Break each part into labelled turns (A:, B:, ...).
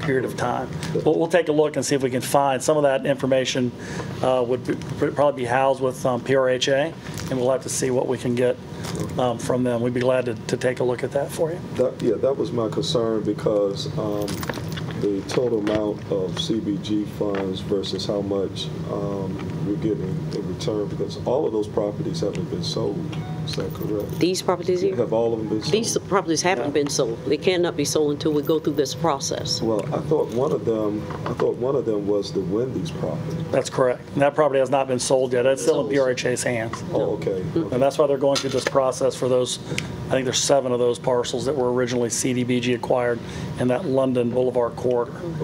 A: period of time. We'll, we'll take a look and see if we can find, some of that information uh, would be- would probably be housed with um, PRHA, and we'll have to see what we can get um, from them. We'd be glad to, to take a look at that for you.
B: That, yeah, that was my concern because um, the total amount of CBG funds versus how much um, we're getting in return, because all of those properties haven't been sold, is that correct?
C: These properties here?
B: Have all of them been sold?
C: These properties haven't been sold. They cannot be sold until we go through this process.
B: Well, I thought one of them, I thought one of them was the Wendy's property.
A: That's correct. And that property has not been sold yet. It's still in PRHA's hands.
B: Oh, okay.
A: And that's why they're going through this process for those, I think there's seven of those parcels that were originally CDBG acquired in that London Boulevard corridor.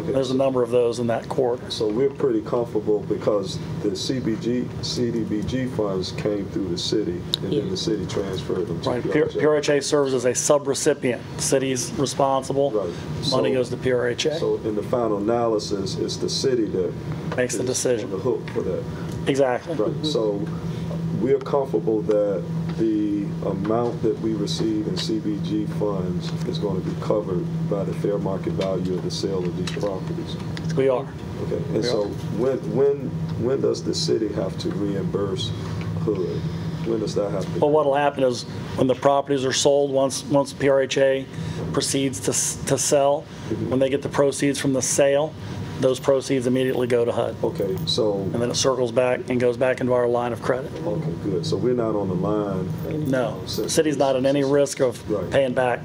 A: There's a number of those in that corridor.
B: So we're pretty comfortable because the CBG, CDBG funds came through the city and then the city transferred them to
A: Right, P-
B: PRJ.
A: PRHA serves as a subrecipient. City's responsible,
B: Right.
A: money
B: So-
A: goes to PRHA.
B: So in the final analysis, it's the city that.
A: Makes the
B: is
A: decision. Mm-hmm.
B: On the hook for that,
A: Exactly.
B: right. So we're comfortable that the amount that we receive in CBG funds is going to be covered by the fair market value of the sale of these properties.
A: We are.
B: Okay, and so when, when, when does the city have to reimburse Hood? When does that happen?
A: Well, what'll happen is when the properties are sold, once, once PRHA proceeds to, s- to sell,
B: Mm-hmm.
A: when they get the proceeds from the sale, those proceeds immediately go to HUD.
B: Okay, so,
A: And then it circles back and goes back into our line of credit.
B: okay, good. So we're not on the line?
A: No,
B: So-
A: city's not at any risk of
B: Right.
A: paying back.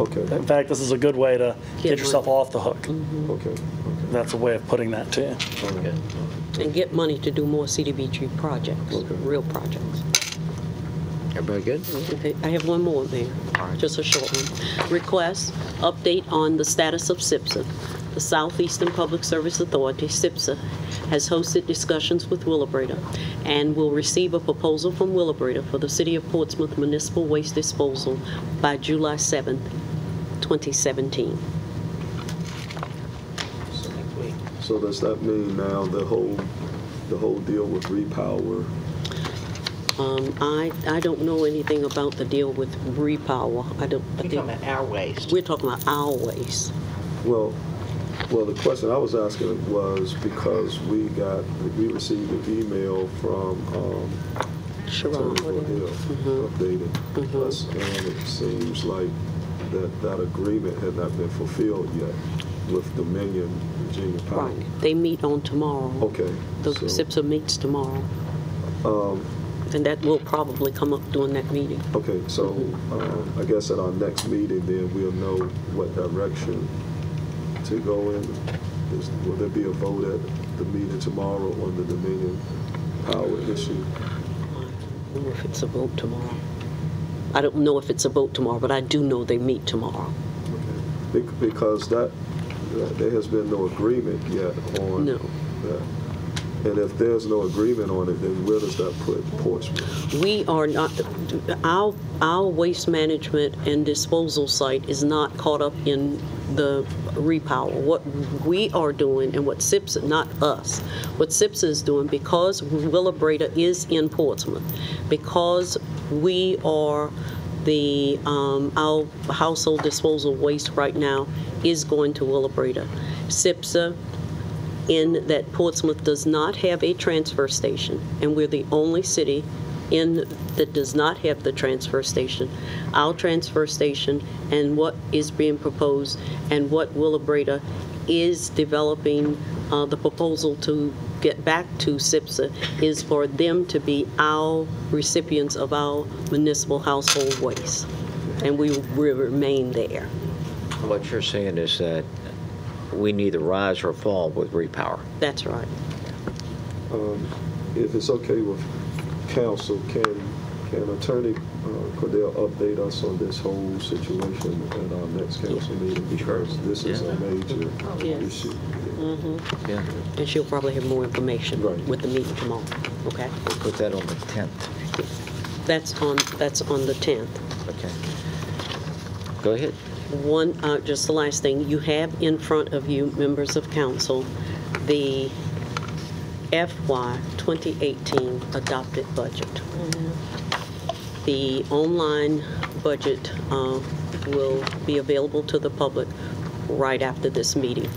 B: Okay,
A: In fact, this is a good way to get
C: Get
A: yourself
C: money.
A: off the hook.
B: okay, okay.
A: That's a way of putting that to you.
B: all right.
C: And get money to do more CDBG projects,
B: Okay.
C: real projects.
D: Everybody good?
C: Okay, I have one more, Mayor, just a short one. Request, update on the status of SIPSA. The Southeastern Public Service Authority, SIPSA, has hosted discussions with Willabretta and will receive a proposal from Willabretta for the City of Portsmouth Municipal Waste Disposal by July 7th, 2017.
B: So does that mean now the whole, the whole deal with repower?
C: Um, I, I don't know anything about the deal with repower. I don't, I
E: You're talking
C: think,
E: about our waste.
C: we're talking about our waste.
B: Well, well, the question I was asking was because we got, we received an email from, um,
C: Sharon, Mm-hmm.
B: Turnbull Hill updated us, and it seems like that, that agreement had not been fulfilled yet with Dominion Virginia Power.
C: right, they meet on tomorrow.
B: Okay.
C: The
B: Oh, so-
C: SIPSA meets tomorrow. And that will probably come up during that meeting.
B: Okay, so um, I guess at our next meeting, then we'll know what direction to go in. Is- Will there be a vote at the meeting tomorrow on the Dominion Power issue?
C: I don't know if it's a vote tomorrow. I don't know if it's a vote tomorrow, but I do know they meet tomorrow.
B: Bec- Because that, that- there has been no agreement yet on.
C: No.
B: that. And if there's no agreement on it, then where does that put Portsmouth?
C: We are not, our, our waste management and disposal site is not caught up in the repower. What we are doing and what SIPSA, not us, what SIPSA is doing, because Willabretta is in Portsmouth, because we are the, um, our household disposal waste right now is going to Willabretta. SIPSA in that Portsmouth does not have a transfer station, and we're the only city in, that does not have the transfer station. Our transfer station and what is being proposed and what Willabretta is developing, uh, the proposal to get back to SIPSA is for them to be our recipients of our municipal household waste, and we will remain there.
D: What you're saying is that we neither rise or fall with repower.
C: That's right.
B: If it's okay with council, can, can Attorney uh, Cordell update us on this whole situation at our next council meeting? Because this is a major
C: Yes.
B: issue.
D: Yeah.
C: And she'll probably have more information
B: Right.
C: with the meeting tomorrow, okay?
D: We'll put that on the 10th.
C: That's on, that's on the 10th.
D: Okay. Go ahead.
C: One, uh, just the last thing, you have in front of you, members of council, the FY 2018 adopted budget. The online budget uh, will be available to the public right after this meeting.